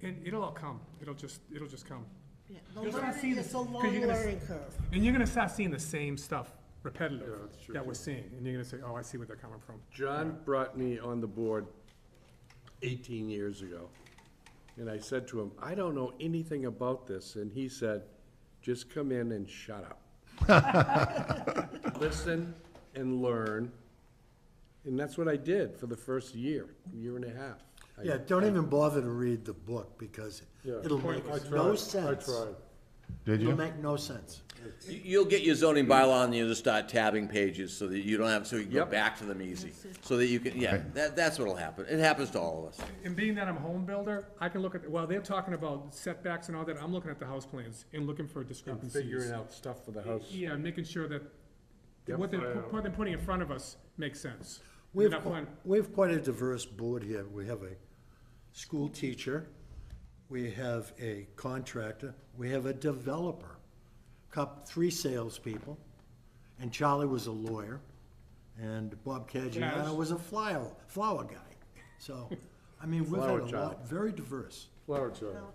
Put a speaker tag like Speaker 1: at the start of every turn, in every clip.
Speaker 1: It, it'll all come, it'll just, it'll just come.
Speaker 2: Yeah, The
Speaker 1: You're gonna
Speaker 2: learning,
Speaker 1: see the-
Speaker 2: it's a long
Speaker 1: 'cause you're gonna s-
Speaker 2: learning curve.
Speaker 1: And you're gonna start seeing the same stuff
Speaker 3: Yeah,
Speaker 1: repetitive
Speaker 3: that's true,
Speaker 1: that
Speaker 3: too.
Speaker 1: we're seeing, and you're gonna say, oh, I see where they're coming from.
Speaker 3: John brought me on the board 18 years ago, and I said to him, "I don't know anything about this," and he said, "Just come in and shut up. Listen and learn." And that's what I did for the first year, year and a half. I-
Speaker 4: Yeah, don't even bother to read the book, because
Speaker 3: Yeah.
Speaker 4: it'll make
Speaker 3: I
Speaker 4: no
Speaker 3: tried, I
Speaker 4: sense.
Speaker 3: tried.
Speaker 5: Did
Speaker 4: It'll
Speaker 5: you?
Speaker 4: make no sense.
Speaker 6: You- You'll get your zoning bylaw and you'll just start tabbing pages so that you don't have, so you can go
Speaker 3: Yep.
Speaker 6: back to them easy. So that you can, yeah, that, that's what'll happen. It happens to all of us.
Speaker 1: And being that I'm a home builder, I can look at, while they're talking about setbacks and all that, I'm looking at the house plans and looking for
Speaker 3: I'm
Speaker 1: discrepancies.
Speaker 3: figuring out stuff for the house.
Speaker 1: Yeah, making sure that
Speaker 3: Yep.
Speaker 1: what they're, pu- what they're putting in front of us makes sense.
Speaker 4: We've,
Speaker 1: Not
Speaker 4: qui-
Speaker 1: one-
Speaker 4: we've quite a diverse board here. We have a school teacher, we have a contractor, we have a developer, cup, three salespeople, and Charlie was a lawyer, and Bob
Speaker 1: Yes.
Speaker 4: Cagiano was a flower, flower guy. So, I mean, we've had
Speaker 3: Flower
Speaker 4: a
Speaker 3: child.
Speaker 4: lot, very diverse.
Speaker 3: Flower child.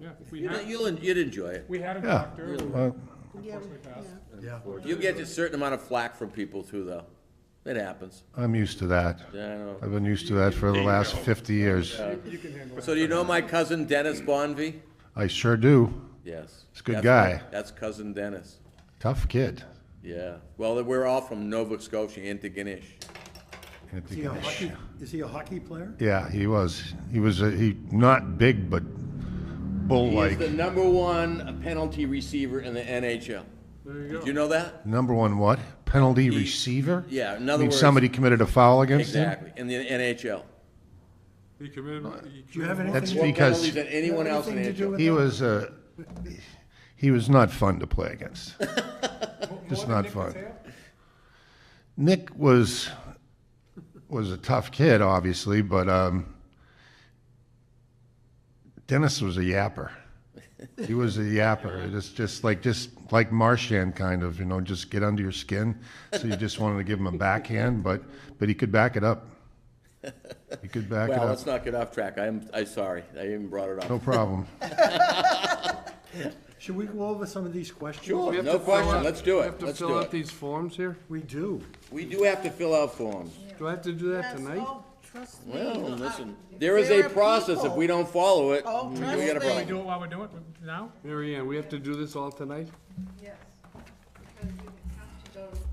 Speaker 1: Yeah, we
Speaker 6: You know,
Speaker 1: had,
Speaker 6: You'll, en- you'd enjoy it.
Speaker 1: we had a
Speaker 5: Yeah.
Speaker 1: doctor.
Speaker 5: Well,
Speaker 2: Yeah,
Speaker 1: Unfortunately passed.
Speaker 2: yeah.
Speaker 4: Yeah.
Speaker 6: You'll get a certain amount of flack from people too, though. It happens.
Speaker 5: I'm used to that.
Speaker 6: Yeah, I know.
Speaker 5: I've been used to that for the last 50 years.
Speaker 1: You can handle it.
Speaker 6: So do you know my cousin Dennis Bonvy?
Speaker 5: I sure do.
Speaker 6: Yes.
Speaker 5: He's a good
Speaker 6: That's
Speaker 5: guy.
Speaker 6: my- That's cousin Dennis.
Speaker 5: Tough kid.
Speaker 6: Yeah. Well, we're all from Nova Scotia, Antigonish.
Speaker 4: Is he a hockey, is he a hockey player?
Speaker 5: Yeah, he was. He was, a- he, not big, but Oh,
Speaker 6: He is the
Speaker 5: bull-like.
Speaker 6: number one penalty receiver in the NHL.
Speaker 3: There you
Speaker 6: Did
Speaker 3: go.
Speaker 6: you know that?
Speaker 5: Number one what? Penalty
Speaker 6: He-
Speaker 5: receiver?
Speaker 6: Yeah, in
Speaker 5: I
Speaker 6: other
Speaker 5: mean,
Speaker 6: words-
Speaker 5: somebody committed a foul against him?
Speaker 6: Exactly, in the NHL.
Speaker 3: He committed, he
Speaker 4: Do you have anything?
Speaker 5: That's
Speaker 4: to-
Speaker 6: More
Speaker 5: because-
Speaker 6: penalties than anyone else in
Speaker 4: Anything to do
Speaker 6: NHL.
Speaker 4: with
Speaker 5: He
Speaker 4: that?
Speaker 5: was, uh, he was not fun to play against. It's not fun. Nick was was a tough kid, obviously, but um, Dennis was a yapper. He was a yapper. Just just like just like Marshan kind of, you know, just get under your skin. So you just wanted to give him a backhand, but but he could back it up. He could back
Speaker 6: Well,
Speaker 5: it
Speaker 6: let's
Speaker 5: up.
Speaker 6: not get off track. I'm, I'm sorry. I even brought it
Speaker 5: No
Speaker 6: up.
Speaker 5: problem.
Speaker 4: Should we go over some of these questions?
Speaker 6: Sure.
Speaker 3: We have
Speaker 6: No
Speaker 3: to fill
Speaker 6: question.
Speaker 3: out-
Speaker 6: Let's do
Speaker 3: we
Speaker 6: it.
Speaker 3: Have to
Speaker 6: Let's
Speaker 3: fill
Speaker 6: do
Speaker 3: out
Speaker 6: it.
Speaker 3: these forms here?
Speaker 4: We do.
Speaker 6: We do have to fill out forms.
Speaker 3: Do I have to do that
Speaker 2: Yes,
Speaker 3: tonight?
Speaker 2: oh, trust me.
Speaker 6: Well,
Speaker 2: I-
Speaker 6: listen, there is a
Speaker 2: there are
Speaker 6: process. If
Speaker 2: people-
Speaker 6: we don't follow it,
Speaker 2: Oh,
Speaker 6: we
Speaker 2: trust
Speaker 6: got a
Speaker 2: me.
Speaker 1: We
Speaker 6: problem.
Speaker 1: do it while we're doing it now?
Speaker 3: Mary Ann, we have to do this all tonight?
Speaker 7: Yes, because you have to go in front of, um,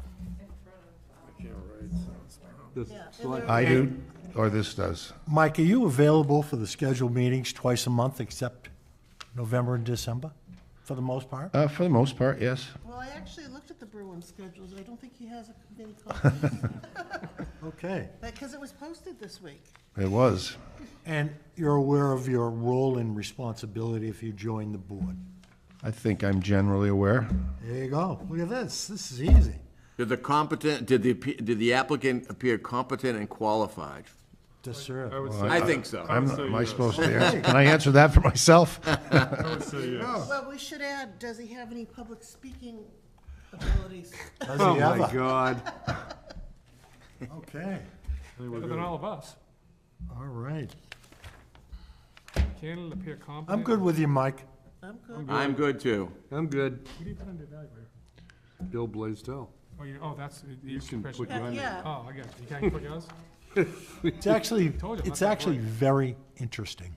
Speaker 3: This
Speaker 2: Yeah, and
Speaker 3: select-
Speaker 5: I do, or this does.
Speaker 4: Mike, are you available for the scheduled meetings twice a month except November and December, for the most part?
Speaker 5: Uh, for the most part, yes.
Speaker 2: Well, I actually looked at the Bruin schedules. I don't think he has a committee conference.
Speaker 4: Okay.
Speaker 2: Because it was posted this week.
Speaker 5: It was.
Speaker 4: And you're aware of your role and responsibility if you join the board?
Speaker 5: I think I'm generally aware.
Speaker 4: There you go. Look at this. This is easy.
Speaker 6: Did the competent, did the, did the applicant appear competent and qualified?
Speaker 4: To
Speaker 3: I
Speaker 4: serve.
Speaker 3: would
Speaker 6: I
Speaker 3: say,
Speaker 6: think so.
Speaker 5: I'm,
Speaker 3: say
Speaker 5: am I
Speaker 3: yes.
Speaker 5: supposed to answer? Can I answer that for myself?
Speaker 3: I would say yes.
Speaker 2: Well, we should add, does he have any public speaking abilities?
Speaker 4: Does
Speaker 3: Oh,
Speaker 4: he
Speaker 3: my
Speaker 4: ever?
Speaker 3: God.
Speaker 4: Okay,
Speaker 1: Better than all of us.
Speaker 4: all right.
Speaker 1: Can it appear competent?
Speaker 4: I'm good with you, Mike.
Speaker 2: I'm good.
Speaker 6: I'm good too.
Speaker 3: I'm good.
Speaker 1: What do you put under evaluator?
Speaker 3: Bill Blaisdell.
Speaker 1: Oh, you, oh, that's, you
Speaker 3: You can put
Speaker 1: Oh,
Speaker 3: your-
Speaker 2: Yeah,
Speaker 1: I got it. You can't put yours?
Speaker 4: It's actually,
Speaker 1: Told you,
Speaker 4: it's
Speaker 1: not that
Speaker 4: actually
Speaker 1: bright.
Speaker 4: very interesting.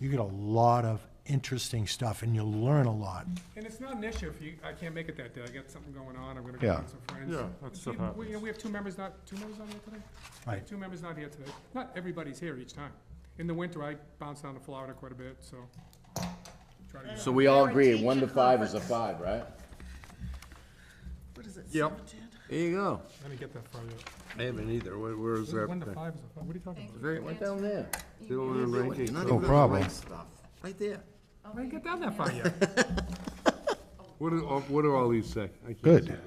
Speaker 4: You get a lot of interesting stuff and you learn a lot.
Speaker 1: And it's not an issue if you, I can't make it that day, I got something going on, I'm gonna go
Speaker 5: Yeah.
Speaker 1: meet some friends.
Speaker 3: Yeah, that stuff
Speaker 1: We- We, you know,
Speaker 3: happens.
Speaker 1: we have two members not, two members on here today?
Speaker 4: Right.
Speaker 1: Two members not here today. Not everybody's here each time. In the winter, I bounce down to Florida quite a bit, so. try to do-
Speaker 6: So we all
Speaker 2: They're a
Speaker 6: agree,
Speaker 2: teacher
Speaker 6: one to five is a
Speaker 2: conference.
Speaker 6: five, right?
Speaker 2: what is it,
Speaker 3: Yep.
Speaker 2: seventeen?
Speaker 6: There you go.
Speaker 1: Let me get that far yet.
Speaker 3: I haven't either. Where- Where is that?
Speaker 1: One to
Speaker 3: thing?
Speaker 1: five is, a- what are you talking about?
Speaker 6: Very, right down there.
Speaker 3: Bill and ranking.
Speaker 5: No problem.
Speaker 6: Right there.
Speaker 1: I didn't get down that far yet.
Speaker 3: What do, all- what do all these say? I can't
Speaker 5: Good.
Speaker 3: see this.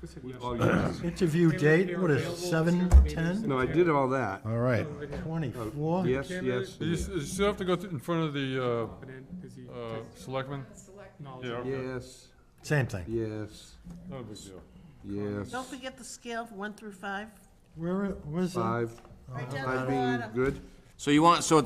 Speaker 1: Just hit yes.
Speaker 3: All yes.
Speaker 4: Interview date, what is it, seven, ten,
Speaker 3: No, I did all that.
Speaker 5: All right.
Speaker 4: twenty-four?
Speaker 3: Yes, yes.
Speaker 8: Oh, You s- you still have to go th- in front of the
Speaker 1: But then, is he
Speaker 8: uh, uh, selectmen?
Speaker 1: knowledgeable?
Speaker 8: Yeah, okay.
Speaker 3: Yes,
Speaker 4: Same thing.
Speaker 3: yes,
Speaker 8: Not a big deal.
Speaker 3: yes.
Speaker 2: Don't forget the scale of one through five.
Speaker 4: Where, where's the?
Speaker 3: Five.
Speaker 2: Right down the
Speaker 3: Five being
Speaker 2: bottom.
Speaker 3: good.
Speaker 6: So you want, so